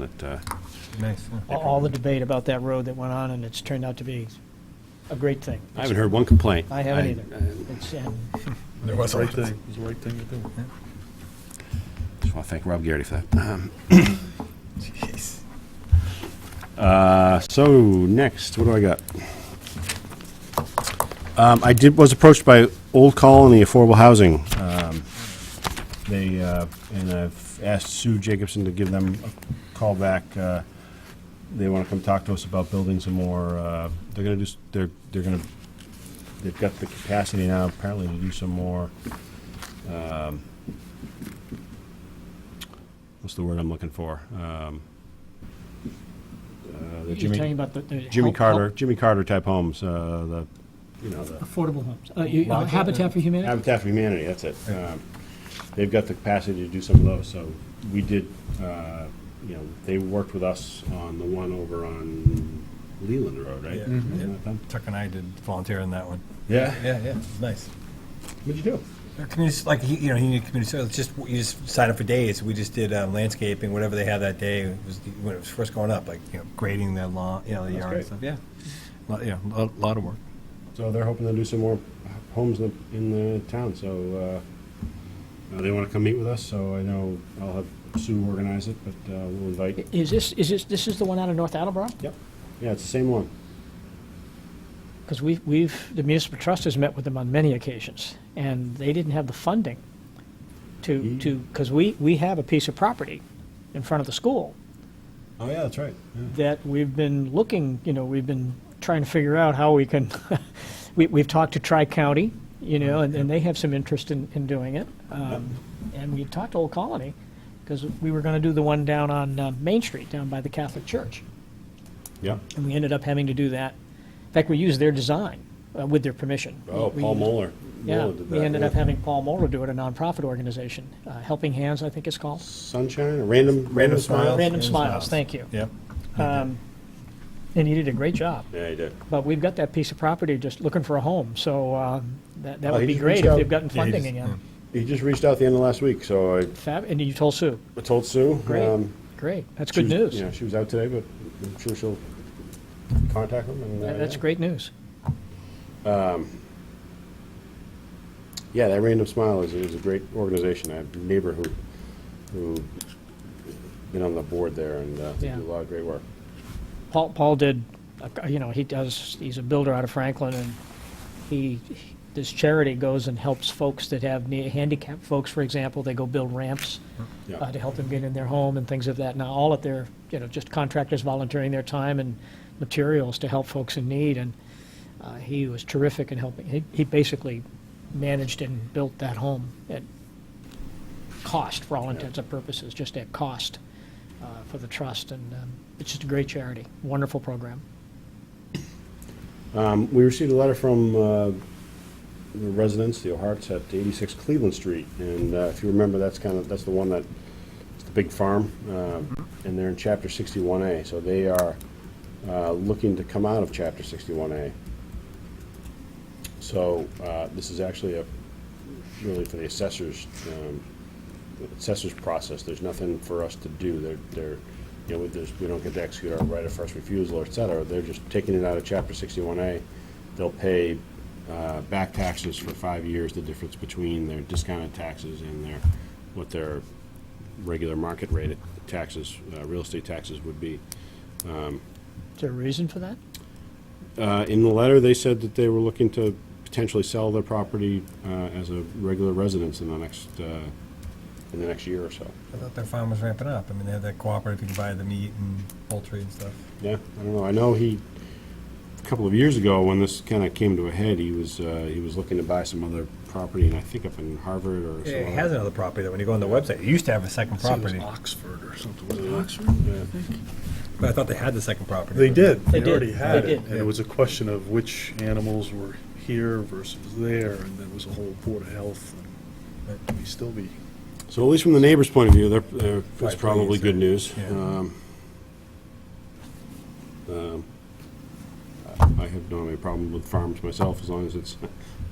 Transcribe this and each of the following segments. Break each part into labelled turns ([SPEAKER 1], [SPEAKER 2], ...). [SPEAKER 1] that, uh,
[SPEAKER 2] Nice, yeah.
[SPEAKER 3] all- all the debate about that road that went on, and it's turned out to be a great thing.
[SPEAKER 1] I haven't heard one complaint. uh,
[SPEAKER 3] I haven't either. It's, and
[SPEAKER 4] There was a
[SPEAKER 2] Right
[SPEAKER 4] lot.
[SPEAKER 2] thing, it was the right thing to do.
[SPEAKER 1] Just want to thank Rob Garrity for that. Um,
[SPEAKER 4] Jeez.
[SPEAKER 1] Uh, so next, what do I got? Um, I did, was approached by Old Colony Affordable Housing. Um, They, uh, and I've asked Sue Jacobson to give them a call back. Uh, They want to come talk to us about building some more, uh, they're going to do, s- they're, they're going to, they've got the capacity now apparently to do some more, um, what's the word I'm looking for? Um, uh, the
[SPEAKER 3] You're
[SPEAKER 1] Jimmy-
[SPEAKER 3] talking about the- the.
[SPEAKER 1] Jimmy
[SPEAKER 3] help-
[SPEAKER 1] Carter, Jimmy Carter type homes, uh, the, you know, the
[SPEAKER 3] Affordable homes. Uh, you- uh, Habitat for Humanity?
[SPEAKER 1] Habitat for Humanity, that's it. Um, They've got the capacity to do some of those, so we did, uh, you know, they worked with us on the one over on Leland Road, right?
[SPEAKER 4] Yeah.
[SPEAKER 1] Isn't
[SPEAKER 4] Yeah.
[SPEAKER 1] that them?
[SPEAKER 4] Tuck and I did volunteer in that one.
[SPEAKER 1] Mm-hmm. Yeah.
[SPEAKER 4] Yeah, yeah, it's nice.
[SPEAKER 1] What'd you do?
[SPEAKER 4] Our community, like, he- you know, he needed community service, just, you just sign up for days. We just did um, landscaping, whatever they had that day, it was, when it was first going up, like, you know, grading the lawn, you know, the
[SPEAKER 1] That's
[SPEAKER 4] yard and stuff, yeah. Lot- Yeah, a lot of work.
[SPEAKER 1] So they're hoping to do some more homes in the, in the town, so, uh, uh, they wanna come meet with us, so I know I'll have Sue organize it, but, uh, we'll invite,
[SPEAKER 3] Is this, is this, this is the one out of North Attleboro?
[SPEAKER 1] yep, yeah, it's the same one.
[SPEAKER 3] Because we've, we've, the municipal trust has met with them on many occasions, and they didn't have the funding to,
[SPEAKER 1] Mm.
[SPEAKER 3] to, because we, we have a piece of property in front of the school
[SPEAKER 1] Oh, yeah, that's right. Yeah.
[SPEAKER 3] that we've been looking, you know, we've been trying to figure out how we can, we, we've talked to Tri-County, you know, and, and they have some interest in, in doing it. Um, And we talked to Old Colony, because we were gonna do the one down on uh, Main Street, down by the Catholic Church.
[SPEAKER 1] Yeah.
[SPEAKER 3] And we ended up having to do that. In fact, we used their design uh, with their permission.
[SPEAKER 1] Oh,
[SPEAKER 3] We-
[SPEAKER 1] Paul Moeller.
[SPEAKER 3] Yeah,
[SPEAKER 1] Moeller did
[SPEAKER 3] we
[SPEAKER 1] that,
[SPEAKER 3] ended
[SPEAKER 1] yeah.
[SPEAKER 3] up having Paul Moeller do it, a nonprofit organization, uh, Helping Hands, I think it's called.
[SPEAKER 1] Sunshine, random, random
[SPEAKER 4] Smiles.
[SPEAKER 1] smile.
[SPEAKER 3] Random Smiles, thank you.
[SPEAKER 4] Yep.
[SPEAKER 3] Um, And he did a great job.
[SPEAKER 1] Yeah, he did.
[SPEAKER 3] But we've got that piece of property just looking for a home, so um, that
[SPEAKER 1] Oh,
[SPEAKER 3] that
[SPEAKER 1] he
[SPEAKER 3] would be
[SPEAKER 1] just
[SPEAKER 3] great
[SPEAKER 1] reached
[SPEAKER 3] if
[SPEAKER 1] out.
[SPEAKER 3] they've gotten
[SPEAKER 4] Yeah, he
[SPEAKER 3] funding
[SPEAKER 4] just-
[SPEAKER 3] again.
[SPEAKER 1] He just reached out the end of last week, so I
[SPEAKER 3] Fab, and you told Sue.
[SPEAKER 1] I told Sue.
[SPEAKER 3] Great,
[SPEAKER 1] um,
[SPEAKER 3] great, that's
[SPEAKER 1] she
[SPEAKER 3] good
[SPEAKER 1] was-
[SPEAKER 3] news.
[SPEAKER 1] Yeah, she was out today, but I'm sure she'll contact him. and, uh,
[SPEAKER 3] That- That's
[SPEAKER 1] yeah.
[SPEAKER 3] great news.
[SPEAKER 1] Yeah, that Random Smile is, is a great organization. I have a neighbor who, who been on the board there and uh, they
[SPEAKER 3] Yeah.
[SPEAKER 1] do a lot of great work.
[SPEAKER 3] Paul, Paul did, uh, you know, he does, he's a builder out of Franklin, and he, this charity goes and helps folks that have ne- handicapped folks, for example, they go build ramps
[SPEAKER 1] Yeah.
[SPEAKER 3] uh, to help them get in their home and things of that. Now, all at their, you know, just contractors volunteering their time and materials to help folks in need, and uh, he was terrific in helping. He, he basically managed and built that home at cost, for all intents and purposes, just at cost uh, for the trust, and um, it's just a great charity, wonderful program.
[SPEAKER 1] Um, We received a letter from uh, the residents, the O'Harts at 86 Cleveland Street, and uh, if you remember, that's kind of, that's the one that, it's the big farm, um, and they're in Chapter 61A, so they are uh, looking to come out of Chapter 61A. So uh, this is actually a, really for the assessors, um, the assessors process, there's nothing for us to do, they're, they're, you know, there's, we don't get to execute our right of first refusal, or et cetera, they're just taking it out of chapter sixty-one A. They'll pay, uh, back taxes for five years, the difference between their discounted taxes and their, what their regular market rate taxes, uh, real estate taxes would be.
[SPEAKER 3] Is there a reason for that?
[SPEAKER 1] Uh, In the letter, they said that they were looking to potentially sell their property uh, as a regular residence in the next, uh, in the next year or so.
[SPEAKER 4] I thought their farm was ramping up. I mean, they had that cooperative, you can buy the meat and poultry and stuff.
[SPEAKER 1] Yeah, I don't know, I know he, a couple of years ago, when this kind of came to a head, he was, uh, he was looking to buy some other property, and I think up in Harvard or
[SPEAKER 4] It
[SPEAKER 1] somewhere.
[SPEAKER 4] has another property, though, when you go on the website, it used to have a second property.
[SPEAKER 5] Oxford or something, was it Oxford?
[SPEAKER 4] But I thought they had the second property.
[SPEAKER 5] They did,
[SPEAKER 3] They
[SPEAKER 5] they
[SPEAKER 3] did.
[SPEAKER 5] already had
[SPEAKER 3] They
[SPEAKER 5] it,
[SPEAKER 3] did.
[SPEAKER 5] and it was a question of which animals were here versus there, and there was a whole Board of Health, and we still be,
[SPEAKER 1] So at least from the neighbor's point of view, they're- they're, it's
[SPEAKER 4] Right,
[SPEAKER 1] probably
[SPEAKER 4] please,
[SPEAKER 1] good
[SPEAKER 4] uh,
[SPEAKER 1] news.
[SPEAKER 4] yeah.
[SPEAKER 1] Um, um, I I have no have a problem with farms myself, as long as it's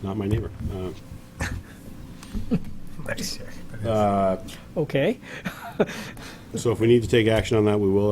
[SPEAKER 1] not my neighbor. Uh,
[SPEAKER 4] Nice.
[SPEAKER 1] Uh,
[SPEAKER 3] Okay,
[SPEAKER 1] So if we need to take action on that, we will